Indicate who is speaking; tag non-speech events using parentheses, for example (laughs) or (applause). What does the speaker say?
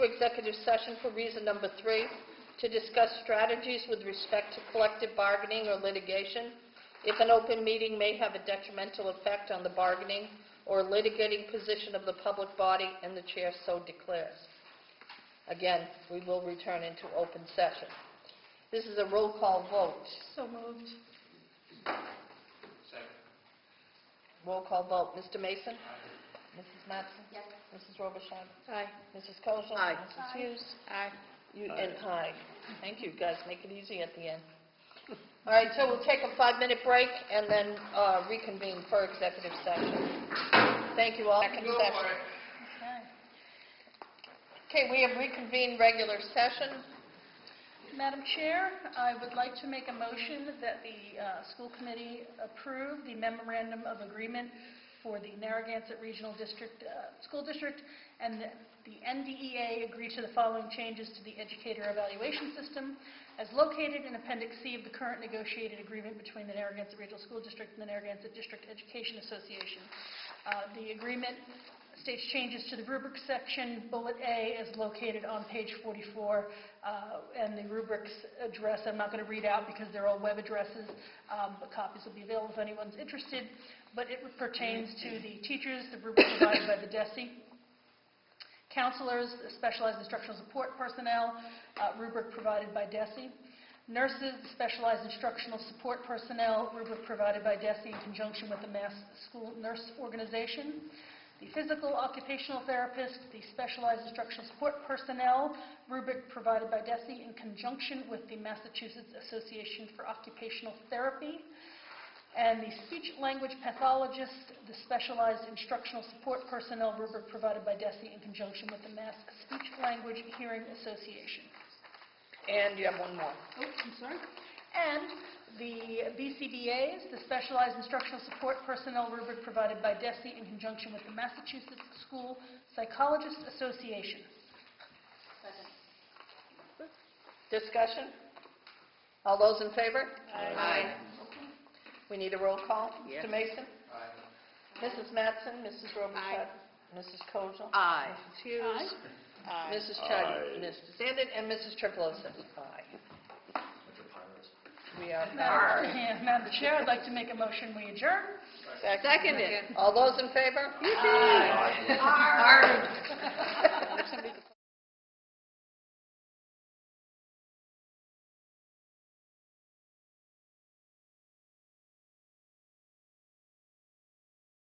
Speaker 1: executive session for reason number three, to discuss strategies with respect to collective bargaining or litigation. If an open meeting may have a detrimental effect on the bargaining or litigating position of the public body, and the chair so declares. Again, we will return into open session. This is a roll call vote.
Speaker 2: So moved.
Speaker 1: Roll call vote. Mr. Mason? Mrs. Mattson?
Speaker 2: Yes.
Speaker 1: Mrs. Robichaud?
Speaker 2: Aye.
Speaker 1: Mrs. Kosel?
Speaker 3: Aye.
Speaker 1: Mrs. Hughes? Aye. You, and aye. Thank you, guys, make it easy at the end. All right, so we'll take a five-minute break and then uh, reconvene for executive session. Thank you all. Second session. Okay, we have reconvened regular session.
Speaker 2: Madam Chair, I would like to make a motion that the uh, school committee approve the memorandum of agreement for the Narragansett Regional District, uh, School District, and that the NDEA agree to the following changes to the educator evaluation system as located in Appendix C of the current negotiated agreement between the Narragansett Regional School District and the Narragansett District Education Association. Uh, The agreement states changes to the rubric section, bullet A is located on page 44, uh, and the rubrics address, I'm not going to read out because they're all web addresses, um, but copies will be available if anyone's interested, but it pertains to the teachers, the rubric provided by the E DESI, counselors, specialized instructional support personnel, uh, rubric provided by DESI, nurses, specialized instructional support personnel, rubric provided by DESI in conjunction with the Mass School Nurse Organization, the physical occupational therapist, the specialized instructional support personnel, rubric provided by DESI in conjunction with the Massachusetts Association for Occupational Therapy, and the speech-language pathologist, the specialized instructional support personnel rubric provided by DESI in conjunction with the Mass Speech-Language Hearing Association.
Speaker 1: And you have one more.
Speaker 2: Oh, I'm sorry. And the BCBA's, the Specialized Instructional Support Personnel rubric provided by DESI in conjunction with the Massachusetts School Psychologists Association.
Speaker 1: Discussion? All those in favor?
Speaker 3: Aye.
Speaker 1: We need a roll call.
Speaker 3: Yes.
Speaker 1: Mr. Mason? Mrs. Mattson? Mrs. Robichaud?
Speaker 3: Aye.
Speaker 1: Mrs. Kosel?
Speaker 3: Aye.
Speaker 1: Mrs. Hughes? Mrs. Chadwick? Mr. Zandon? And Mrs. Tripolo says aye. We are
Speaker 2: Madam-
Speaker 1: pirates.
Speaker 2: yeah, Madam Chair, I'd like to make a motion, we adjourn.
Speaker 3: Seconded.
Speaker 1: All those in favor?
Speaker 3: Aye. (laughs)
Speaker 1: Aye.